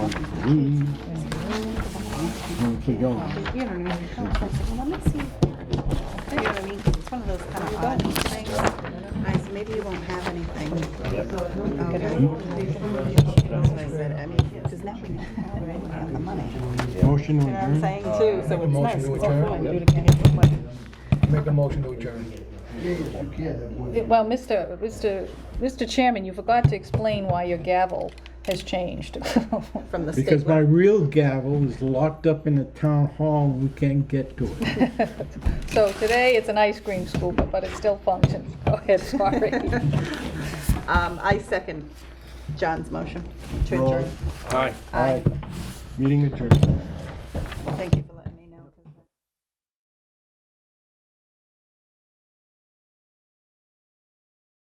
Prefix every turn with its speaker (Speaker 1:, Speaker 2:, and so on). Speaker 1: me. Okay, go.
Speaker 2: You don't know. Oh, I was like, well, let me see. You know what I mean? 'Cause it's one of those kind of odd things. I said, maybe you won't have anything. Okay. That's what I said. I mean, 'cause now we know, right? We have the money.
Speaker 1: Motion to
Speaker 2: You know what I'm
Speaker 1: adjourn.
Speaker 2: saying too, so it's nice.
Speaker 3: to
Speaker 2: It's all
Speaker 3: adjourn.
Speaker 2: fun. Do it again.
Speaker 3: Make a motion to adjourn.
Speaker 4: Well, Mr. Mr. Mr. Chairman, you forgot to explain why your gavel has changed
Speaker 2: From the
Speaker 1: Because
Speaker 2: state.
Speaker 1: my real gavel is locked up in the town hall, and we can't get to it.
Speaker 4: So today, it's an ice cream scooper, but it still functions. Go ahead, sorry.
Speaker 2: Um, I second John's motion to
Speaker 1: Roll.
Speaker 2: adjourn.
Speaker 1: Aye. Meeting adjourned.
Speaker 2: Thank you for letting